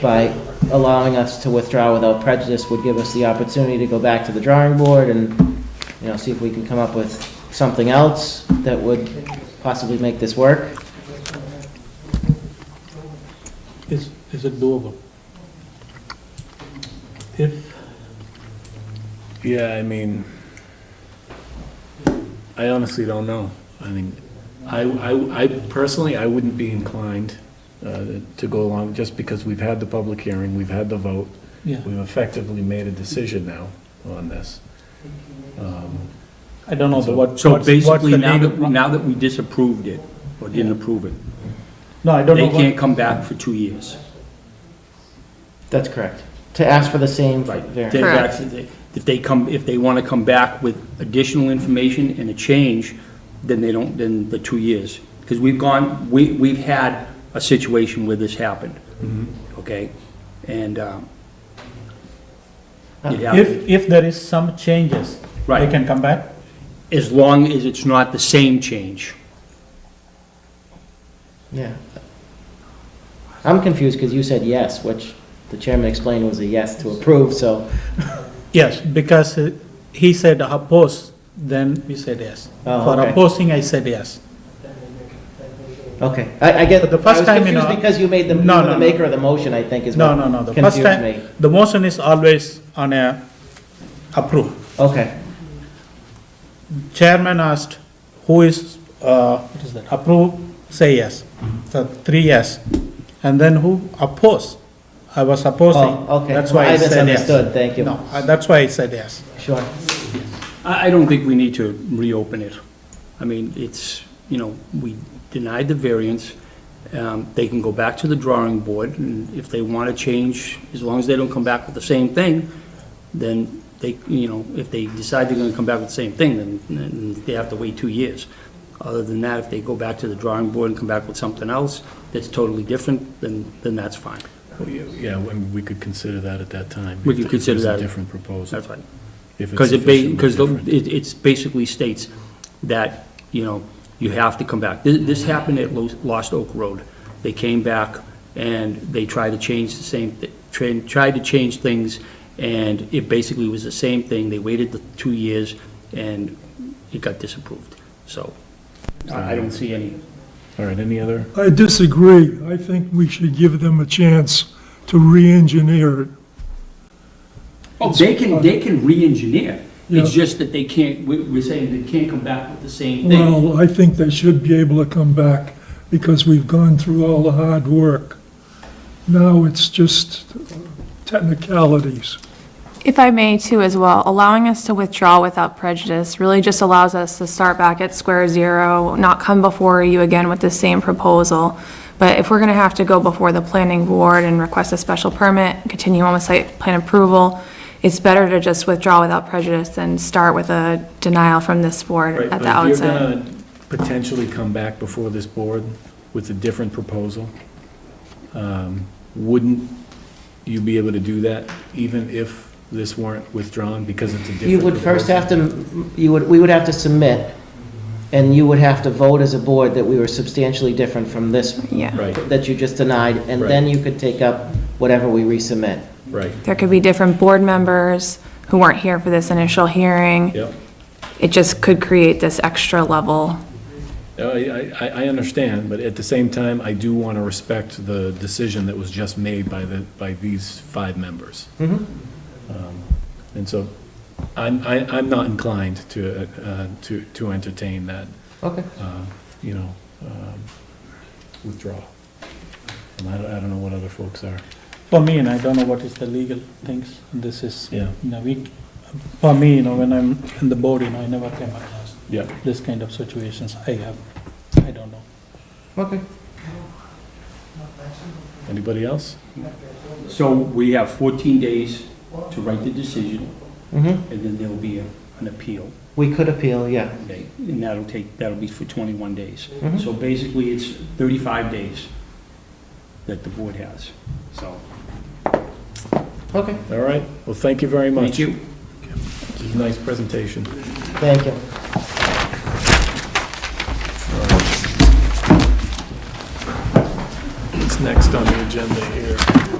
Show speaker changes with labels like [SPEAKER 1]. [SPEAKER 1] by allowing us to withdraw without prejudice would give us the opportunity to go back to the drawing board and, you know, see if we can come up with something else that would possibly make this work.
[SPEAKER 2] Is, is it doable? If,
[SPEAKER 3] Yeah, I mean, I honestly don't know. I mean, I, I, I personally, I wouldn't be inclined uh, to go along, just because we've had the public hearing, we've had the vote,
[SPEAKER 2] yeah,
[SPEAKER 3] we've effectively made a decision now on this. Um,
[SPEAKER 2] I don't know
[SPEAKER 3] So-
[SPEAKER 2] what, what's,
[SPEAKER 4] So
[SPEAKER 2] what's
[SPEAKER 4] basically,
[SPEAKER 2] the
[SPEAKER 4] now
[SPEAKER 2] legal...
[SPEAKER 4] that, now that we disapproved it, or didn't approve it,
[SPEAKER 2] No, I don't know
[SPEAKER 4] they
[SPEAKER 2] what,
[SPEAKER 4] can't come back for two years.
[SPEAKER 1] That's correct. To ask for the same
[SPEAKER 4] They've
[SPEAKER 1] variance.
[SPEAKER 5] Correct.
[SPEAKER 4] actually- If they come, if they want to come back with additional information and a change, then they don't, then the two years. Because we've gone, we, we've had a situation where this happened,
[SPEAKER 2] Mm-hmm.
[SPEAKER 4] okay? And, um, it happened.
[SPEAKER 2] if, if there is some changes, they
[SPEAKER 4] Right.
[SPEAKER 2] can come back?
[SPEAKER 4] as long as it's not the same change.
[SPEAKER 1] Yeah. I'm confused because you said yes, which the chairman explained was a yes to approve, so,
[SPEAKER 2] Yes, because uh, he said oppose, then we said yes.
[SPEAKER 1] Oh,
[SPEAKER 2] For
[SPEAKER 1] okay.
[SPEAKER 2] opposing, I said yes.
[SPEAKER 1] okay. I, I get,
[SPEAKER 2] But
[SPEAKER 1] I
[SPEAKER 2] the
[SPEAKER 1] was
[SPEAKER 2] first time, you
[SPEAKER 1] confused
[SPEAKER 2] know-
[SPEAKER 1] because you made the, you
[SPEAKER 2] No,
[SPEAKER 1] were the
[SPEAKER 2] no, no.
[SPEAKER 1] maker of the motion, I think, is
[SPEAKER 2] No,
[SPEAKER 1] what
[SPEAKER 2] no, no, the first
[SPEAKER 1] confused me.
[SPEAKER 2] time, the motion is always on a approve.
[SPEAKER 1] Okay,
[SPEAKER 2] Chairman asked, who is, uh, what is that, approve, say yes. So three yes. And then who oppose? I was opposing.
[SPEAKER 1] Oh, okay.
[SPEAKER 2] That's why
[SPEAKER 1] I
[SPEAKER 2] I said yes.
[SPEAKER 1] misunderstood. Thank you.
[SPEAKER 2] No, I- that's why I said yes.
[SPEAKER 1] sure.
[SPEAKER 4] I, I don't think we need to reopen it. I mean, it's, you know, we denied the variance. Um, They can go back to the drawing board, and if they want to change, as long as they don't come back with the same thing, then they, you know, if they decide they're going to come back with the same thing, then, then they have to wait two years. Other than that, if they go back to the drawing board and come back with something else that's totally different, then, then that's fine.
[SPEAKER 3] well, Yeah, yeah, I mean, we could consider that at that time.
[SPEAKER 4] We
[SPEAKER 3] if-
[SPEAKER 4] could
[SPEAKER 3] if there's
[SPEAKER 4] consider that.
[SPEAKER 3] a different proposal.
[SPEAKER 4] That's fine.
[SPEAKER 3] if it's
[SPEAKER 4] Because it,
[SPEAKER 3] sufficiently
[SPEAKER 4] because
[SPEAKER 3] different.
[SPEAKER 4] it, it's basically states that, you know, you have to come back. This, this happened at Los- Lost Oak Road. They came back and they tried to change the same, thi- tra- tried to change things, and it basically was the same thing. They waited the two years, and it got disapproved. So I I don't see any,
[SPEAKER 3] All right, any other?
[SPEAKER 6] I disagree. I think we should give them a chance to re-engineer it.
[SPEAKER 4] they can, they can re-engineer. It's
[SPEAKER 6] Oh, Yeah.
[SPEAKER 4] just that they can't, we- we're saying they can't come back with the same thing.
[SPEAKER 6] Well, I think they should be able to come back because we've gone through all the hard work. Now it's just technicalities.
[SPEAKER 5] If I may too as well, allowing us to withdraw without prejudice really just allows us to start back at square zero, not come before you again with the same proposal. But if we're gonna have to go before the planning board and request a special permit, continue on with site plan approval, it's better to just withdraw without prejudice than start with a denial from this board
[SPEAKER 3] Right,
[SPEAKER 5] at the
[SPEAKER 3] but if you're
[SPEAKER 5] outset.
[SPEAKER 3] gonna potentially come back before this board with a different proposal, um, wouldn't you be able to do that even if this weren't withdrawn because it's a different
[SPEAKER 1] You would first
[SPEAKER 3] proposal?
[SPEAKER 1] have to, you would, we would have to submit, and you would have to vote as a board that we were substantially different from this
[SPEAKER 5] Yeah,
[SPEAKER 3] Right,
[SPEAKER 1] that you just denied, and then you could take up whatever we resubmit.
[SPEAKER 3] right,
[SPEAKER 5] there could be different board members who weren't here for this initial hearing.
[SPEAKER 3] yep.
[SPEAKER 5] It just could create this extra level.
[SPEAKER 3] Uh, I, I, I understand, but at the same time, I do want to respect the decision that was just made by the, by these five members.
[SPEAKER 1] Mhm.
[SPEAKER 3] Um, And so I'm, I, I'm not inclined to, uh, to, to entertain that
[SPEAKER 1] Okay.
[SPEAKER 3] um, you know, um, withdraw. And I don't, I don't know what other folks are.
[SPEAKER 2] For me, and I don't know what is the legal things, this is,
[SPEAKER 3] Yeah.
[SPEAKER 2] you know, we, for me, you know, when I'm in the board, you know, I never came across
[SPEAKER 3] Yeah.
[SPEAKER 2] this kind of situations. I have, I don't know.
[SPEAKER 1] Okay.
[SPEAKER 3] Anybody else?
[SPEAKER 4] So we have 14 days to write the decision.
[SPEAKER 1] hmm
[SPEAKER 4] and then there'll be a- an appeal,
[SPEAKER 1] We could appeal, yeah.
[SPEAKER 4] okay? And that'll take, that'll be for 21 days.
[SPEAKER 1] Mhm.
[SPEAKER 4] So basically, it's 35 days that the board has, so.
[SPEAKER 1] Okay,
[SPEAKER 3] All right. Well, thank you very much.
[SPEAKER 4] Thank you.
[SPEAKER 3] Nice presentation.
[SPEAKER 1] thank you.
[SPEAKER 3] What's next on the agenda here?